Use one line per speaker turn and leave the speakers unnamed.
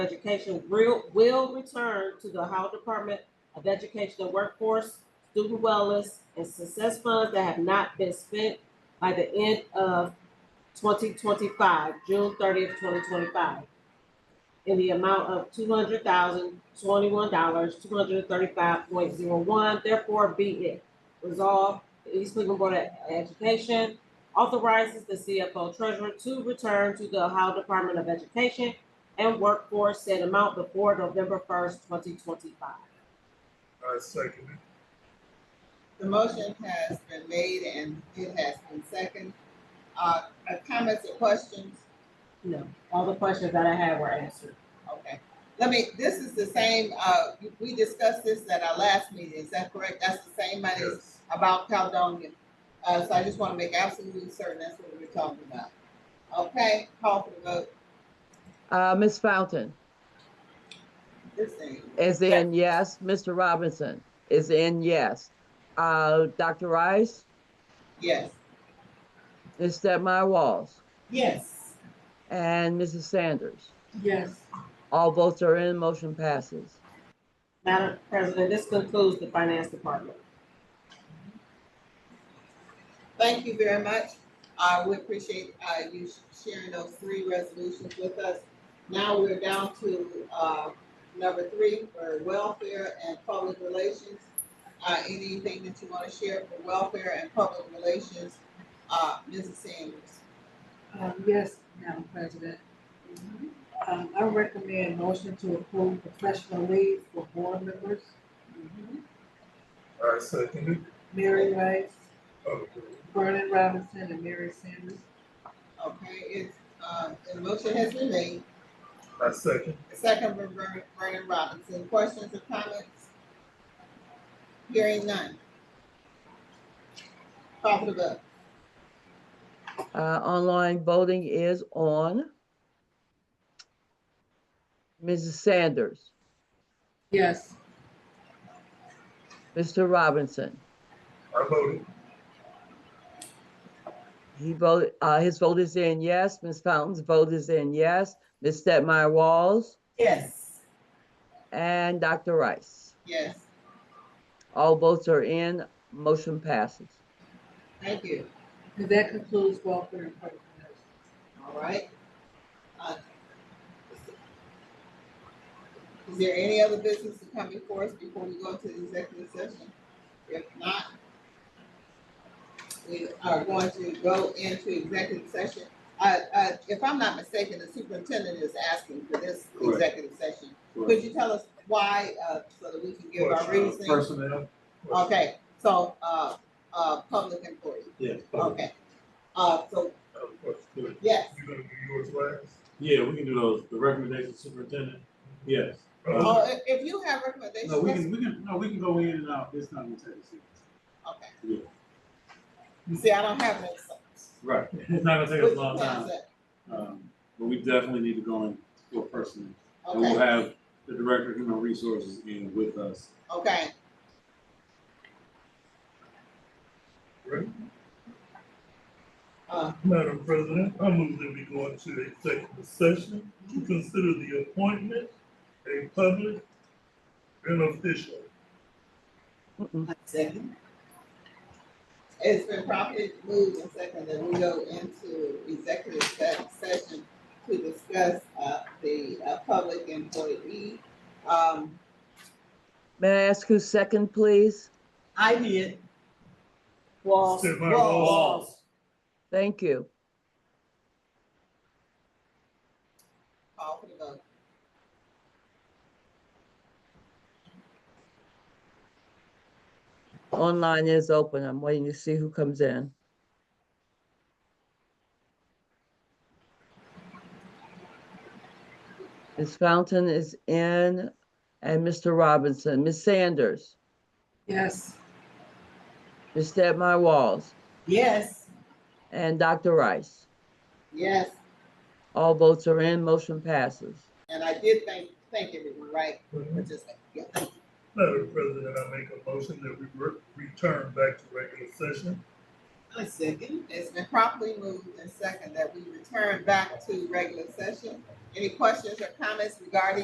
Education will, will return to the Ohio Department of Education and Workforce, Student Wellness, and Success Funds that have not been spent by the end of twenty twenty-five, June thirtieth, twenty twenty-five, in the amount of two hundred thousand, twenty-one dollars, two hundred and thirty-five point zero one, therefore be it resolved, the East Cleveland Board of Education authorizes the CFO treasurer to return to the Ohio Department of Education and workforce said amount before November first, twenty twenty-five.
I second it.
The motion has been made and it has been second. Uh, uh, comments or questions?
No, all the questions that I had were answered.
Okay. Let me, this is the same, uh, we discussed this at our last meeting, is that correct? That's the same money
Yes.
about Caledonia. Uh, so I just want to make absolutely certain that's what we're talking about. Okay, call for the vote.
Uh, Ms. Fountain
This thing,
is in yes. Mr. Robinson is in yes. Uh, Dr. Rice,
yes.
Ms. Stepmy Walls,
Yes.
and Mrs. Sanders.
Yes.
All votes are in, motion passes.
Madam President, this concludes the finance department.
Thank you very much. Uh, we appreciate, uh, you sh- sharing those three resolutions with us. Now we're down to, uh, number three for welfare and public relations. Uh, anything that you want to share for welfare and public relations, uh, Mrs. Sanders?
Um, yes, Madam President.
Mm-hmm,
Um, I recommend motion to approve professional leave for board members,
mm-hmm.
I second it.
Mary Rice,
Okay.
Vernon Robinson, and Mary Sanders.
Okay, it's, uh, the motion has been made,
I second.
second from Vernon, Vernon Robinson, questions or comments? Hearing none. Call for the vote.
Uh, online voting is on. Mrs. Sanders,
Yes.
Mr. Robinson,
I voted.
he voted, uh, his vote is in yes. Ms. Fountain's vote is in yes. Ms. Stepmy Walls
Yes.
and Dr. Rice.
Yes,
All votes are in, motion passes.
thank you,
And that concludes welfare and public relations.
all right. Uh, Is there any other business to come before us before we go to the executive session? If not, we are going to go into executive session. Uh, uh, if I'm not mistaken, the superintendent is asking for this
Correct.
executive session. Could
Correct. uh,
you tell us why, uh, so that we can give our
Question. uh,
reasoning?
Personnel?
Okay, so, uh, uh, public employee,
Yeah. public.
okay. Uh, so,
I have a question.
yes.
You gonna do yours last?
Yeah, we can do those, the recommendation superintendent, yes.
Uh,
Oh, if, if you have recommendations,
Uh-huh. No, we
let's-
can, we can, no, we can go in and out, it's not gonna take us.
okay. See, I don't have that. so-
Right, it's not gonna take us a long
Which one
time,
is it?
um, but we definitely need to go in for personnel. And we'll
Okay,
have the director of human resources in with us.
okay, uh,
Madam President, I move that we go into executive session to consider the appointment, a public, and official.
Mm-mm.
second. It's been properly moved and second that we go into executive se- session to discuss, uh, the, uh, public employee. Um,
May I ask who's second, please?
I did.
Walls,
Step by
Walls.
Thank you.
Call for the vote.
Online is open. I'm waiting to see who comes in. Ms. Fountain is in and Mr. Robinson, Ms. Sanders,
Yes.
Ms. Stepmy Walls,
Yes.
and Dr. Rice.
Yes.
All votes are in, motion passes.
And I did thank, thank everyone, right?
Madam
Participant. Yeah.
President, I make a motion that we re- return back to regular session
I second. It's been properly moved and second that we return back to regular session. Any questions or comments regarding